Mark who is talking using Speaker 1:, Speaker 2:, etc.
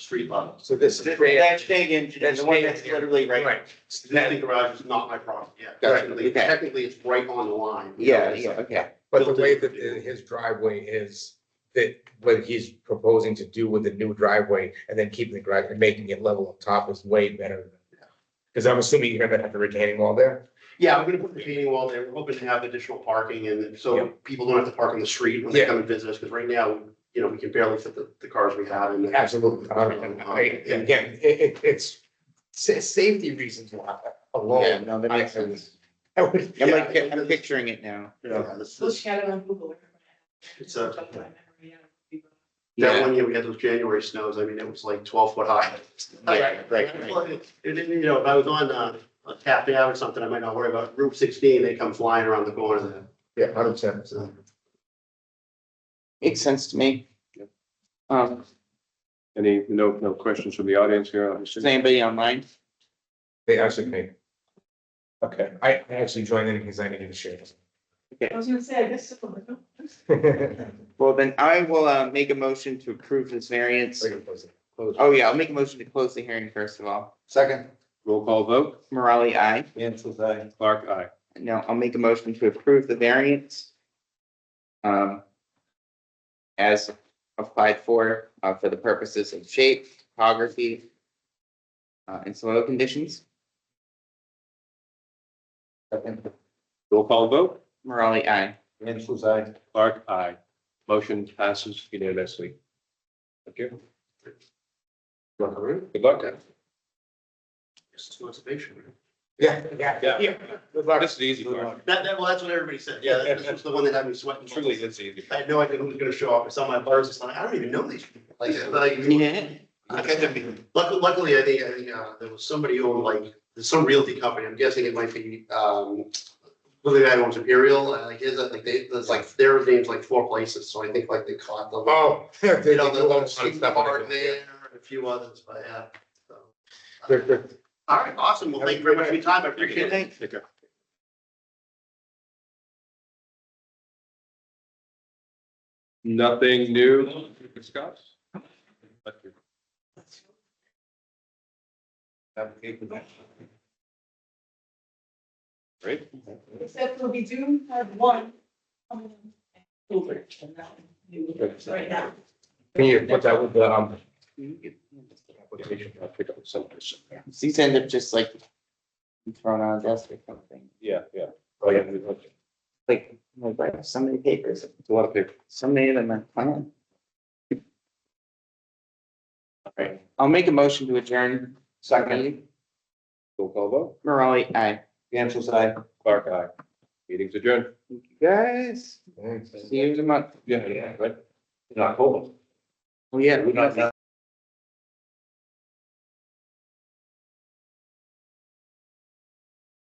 Speaker 1: street level.
Speaker 2: So this is.
Speaker 3: That's big and the one that's literally right.
Speaker 4: Right.
Speaker 3: That garage is not my property yet.
Speaker 2: Gotcha,
Speaker 3: Technically,
Speaker 2: okay.
Speaker 3: technically, it's right on the line.
Speaker 2: Yeah, yeah, okay.
Speaker 4: But the way that the- his driveway is, that what he's proposing to do with the new driveway and then keeping the garage and making it level up top is way better. than Because I'm assuming you're gonna have the retaining wall there.
Speaker 3: Yeah, I'm gonna put the retaining wall there. We're hoping to have additional parking and
Speaker 4: Yeah.
Speaker 3: so people don't have to park on the street when they
Speaker 4: Yeah.
Speaker 3: come and visit us, because right now, you know, we can barely fit the, the cars we have in. there.
Speaker 4: Absolutely. Uh, I-
Speaker 3: Yeah.
Speaker 4: Again, it, it, it's sa- safety reasons why
Speaker 2: Yeah,
Speaker 4: alone.
Speaker 2: no, that makes sense.
Speaker 4: I would-
Speaker 2: I'm
Speaker 4: yeah.
Speaker 2: like, I'm picturing it now.
Speaker 3: Yeah, this
Speaker 5: Look
Speaker 3: is,
Speaker 5: at it on Google.
Speaker 3: It's a-
Speaker 5: It's
Speaker 3: that one year we had those January snows. I mean, it was like twelve foot high.
Speaker 2: Right, right, right.
Speaker 3: Well, It it didn't, you know, if I was on, uh, a Taft Ave or something, I might not worry about Route sixteen. They come flying around the corner there.
Speaker 4: Yeah, hundred percent.
Speaker 3: So.
Speaker 2: Makes sense to me. Um,
Speaker 6: Any, no, no questions from the audience here? I
Speaker 2: is
Speaker 6: assume?
Speaker 2: anybody online?
Speaker 4: They actually made. Okay, I I actually joined in because I needed to share this.
Speaker 5: I was gonna say, I guess. so.
Speaker 2: Well, then I will, uh, make a motion to approve this variance.
Speaker 4: Second.
Speaker 2: Oh, yeah, I'll make a motion to close the hearing first of all.
Speaker 6: Roll call vote,
Speaker 2: Morale, aye.
Speaker 6: Clark, aye.
Speaker 2: Now, I'll make a motion to approve the variance. Um. As applied for, uh, for the purposes of shape, topography. Uh, and soil conditions.
Speaker 6: Roll call vote,
Speaker 2: Morale, aye.
Speaker 6: Clark, aye. Motion passes unanimously. Thank you. Good luck.
Speaker 3: Just too much motivation.
Speaker 4: Yeah, yeah,
Speaker 6: Yeah.
Speaker 4: yeah. Good luck.
Speaker 6: This is the easy part.
Speaker 3: That, that, well, that's what everybody said. Yeah, that- this was the one that had me sweating.
Speaker 6: Truly, it's the easy.
Speaker 3: I
Speaker 6: part.
Speaker 3: had no idea who was gonna show up. I saw my bars, it's like, I don't even know these people. Like, like,
Speaker 2: Yeah.
Speaker 3: I kind of- luckily, luckily, I think, I think, uh, there was somebody who owned like, there's some realty company, I'm guessing it might be, um, who the guy who owns Imperial, uh, like, his, I think they, there's like, their name's like four places, so I think like they caught them.
Speaker 4: Oh. They
Speaker 3: You
Speaker 4: did
Speaker 3: know,
Speaker 4: a
Speaker 3: the
Speaker 4: lot
Speaker 3: little
Speaker 4: of stuff.
Speaker 3: park there, and a few others, but yeah, so.
Speaker 4: Good, good.
Speaker 3: All right, awesome. Well, thank you very much for your time. I appreciate it.
Speaker 6: Take care. Nothing new to discuss? Great.
Speaker 5: Except for we do have one coming in October, and that we will do right now.
Speaker 4: Can you put that with the, um,
Speaker 6: Application, I'll pick up some of this.
Speaker 2: These end up just like. Thrown on a desk or something,
Speaker 6: Yeah, yeah.
Speaker 4: Oh, yeah.
Speaker 6: It's
Speaker 2: like, like, I have so many papers,
Speaker 6: a lot of paper.
Speaker 2: so many of them are planned. Alright, I'll make a motion to adjourn. Second.
Speaker 6: Roll call vote,
Speaker 2: Morale, aye.
Speaker 6: Clark, aye. Meeting's adjourned.
Speaker 2: Guys,
Speaker 4: thanks.
Speaker 2: see you in a month.
Speaker 6: Yeah, yeah, right. In October.
Speaker 2: Well, yeah.
Speaker 6: We're not-